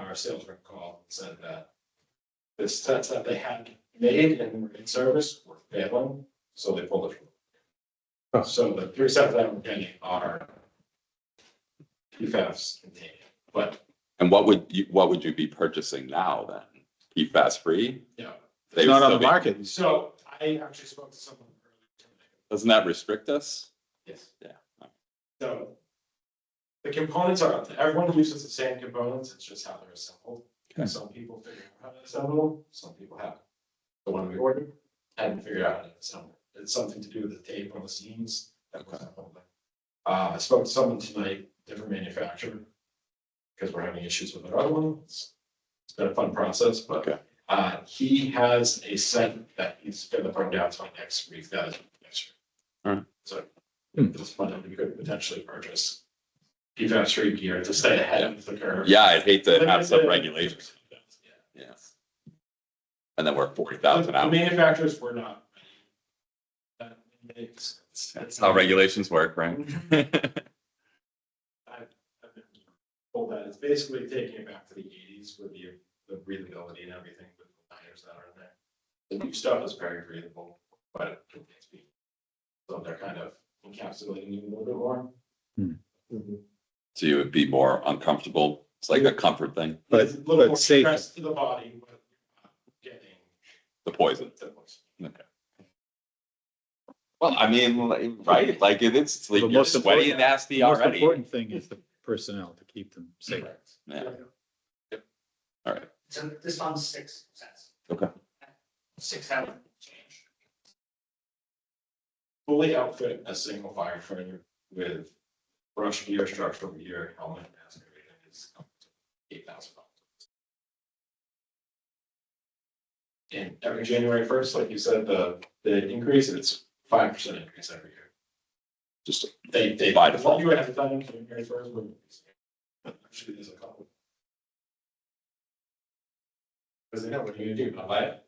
our sales rep called and said that this test that they had made and were in service were failing, so they pulled it. Huh. from. So the three sets that we're getting are PFAS contained, but And what would you, what would you be purchasing now then? PFAS free? Yeah. They would Not on the still be, market. It's- so I actually spoke to someone earlier today. doesn't that restrict us? Yes. Yeah. So the components are, everyone uses the same components, it's just how they're assembled. Okay. Some people figure out how to assemble, them, some people haven't. The one we ordered hadn't figured out how to assemble. It's something to do with the tape on the seams that was assembled. Uh, I spoke to someone tonight, different manufacturer, because we're having issues with another one. It's it's been a fun process, but Okay. uh, he has a set that he's gonna bring down to next week, that is next week. Alright. So Hmm. it's fun that we could potentially purchase PFAS free gear to stay ahead of the curve. Yeah, I'd hate to Like I have some said- regulations. Yeah. Yeah. And then we're forty The thousand the out. manufacturers were not. uh, it's- it's- That's how regulations work, right? Hold that, it's basically taking it back to the eighties with the, the breathability and everything with the liners that are in there. The new stuff is very breathable, but it can be. So they're kind of encapsulating you a little bit more. Mm-hmm. Hmm. So you would be more uncomfortable. It's like a comfort thing, But- It's a little but more safe. stress To the body, but you're not getting. the poison. the poison. Well, I mean, like, right, like it is, it's like But you're most sweaty and important- nasty The most already. important thing is the personnel to keep them safe. Correct. Yeah, all right. So this one's six cents. Okay. Six hour change. Fully outfit a single firefighter with brush gear, structural gear, helmet, mask, everything is eight thousand dollars. And every January first, like you said, the, the increase, it's five percent increase every year. Just They, they. By default. You have to tell them January first. Actually, there's a couple. Cause they know what you're gonna do, not buy it.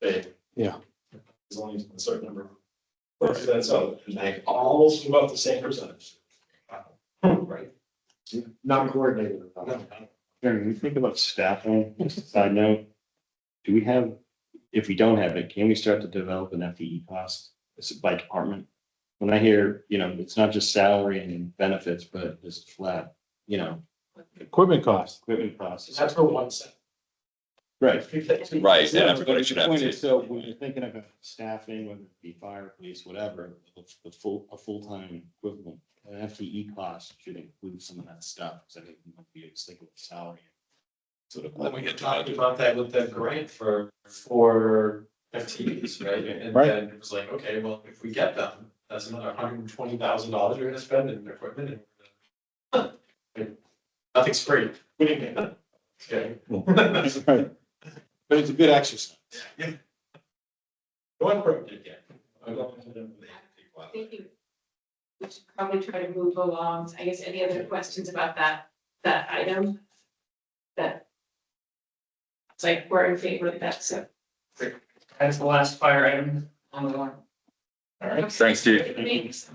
They. Yeah. There's only a certain number. Or is that so, and they all move up the same percentage. Right. Not coordinated. No. Karen, when we think about staffing, just a side note, do we have, if we don't have it, can we start to develop an FTE cost Is it by department? When I hear, you know, it's not just salary and benefits, but just flat, you know, Equipment costs. equipment costs. That's for one set. Right. Right, and Yeah, everybody but should the have point to. is, So when you're thinking about staffing, whether it be fire, police, whatever, the- the full, a full-time equivalent, an FTE cost should include some of that stuff. So I think you might be just thinking of salary. Sort of Well, when we we get to talked budget. about that with that grant for, for FTEs, right? And Right. then it was like, okay, well, if we get them, that's another hundred and twenty thousand dollars you're gonna spend in equipment and. Huh. Like, Nothing's free. What do you mean? Okay. Right. But it's a good exercise. One broke it again. I'm going to them with eight people out there. Thank you. We should probably try to move along. I guess any other questions about that, that item? That. It's like we're in favor of that, so. That's the last fire item on the line. All right, Thanks, Steve. Thanks.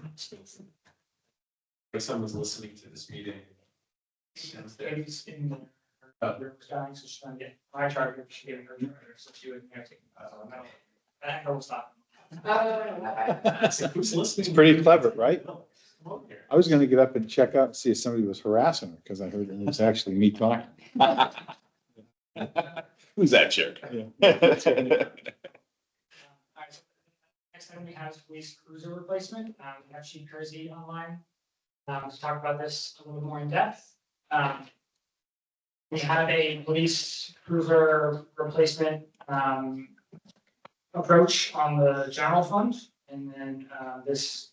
if someone's listening to this meeting. Since there is in the. Uh, there was dying, so she's trying to get my charger, she gave her charger, so she wouldn't have to. uh, no. That girl was not. Oh, That's like, who's listening? It's pretty clever, right? Come on here. I was gonna get up and check out and see if somebody was harassing her, because I heard it was actually me talking. Who's that jerk? Um, All right, so Next item we have is police cruiser replacement. Um, we have Chief Kersey online. Um, to talk about this a little more in depth. Um. We have a police cruiser replacement, um. Approach on the general fund and then, uh, this.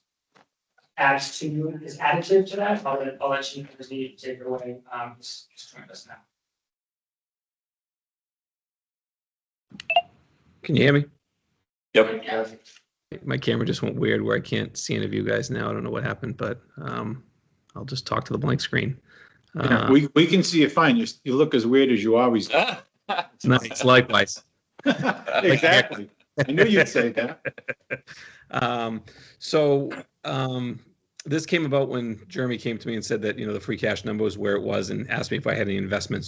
Adds to, is additive to that. I'll let, I'll let Chief Kersey take it away. Um, he's just joined us now. Can you hear me? Yep. My camera just went weird where I can't see any of you guys now. I don't know what happened, but um, I'll just talk to the blank screen. Yeah, Uh, We, we can see you fine. You, s- you look as weird as you always. do. nice, likewise. Exactly. I knew you'd say that. Um, so um, this came about when Jeremy came to me and said that you know the free cash number was where it was and asked me if I had any investments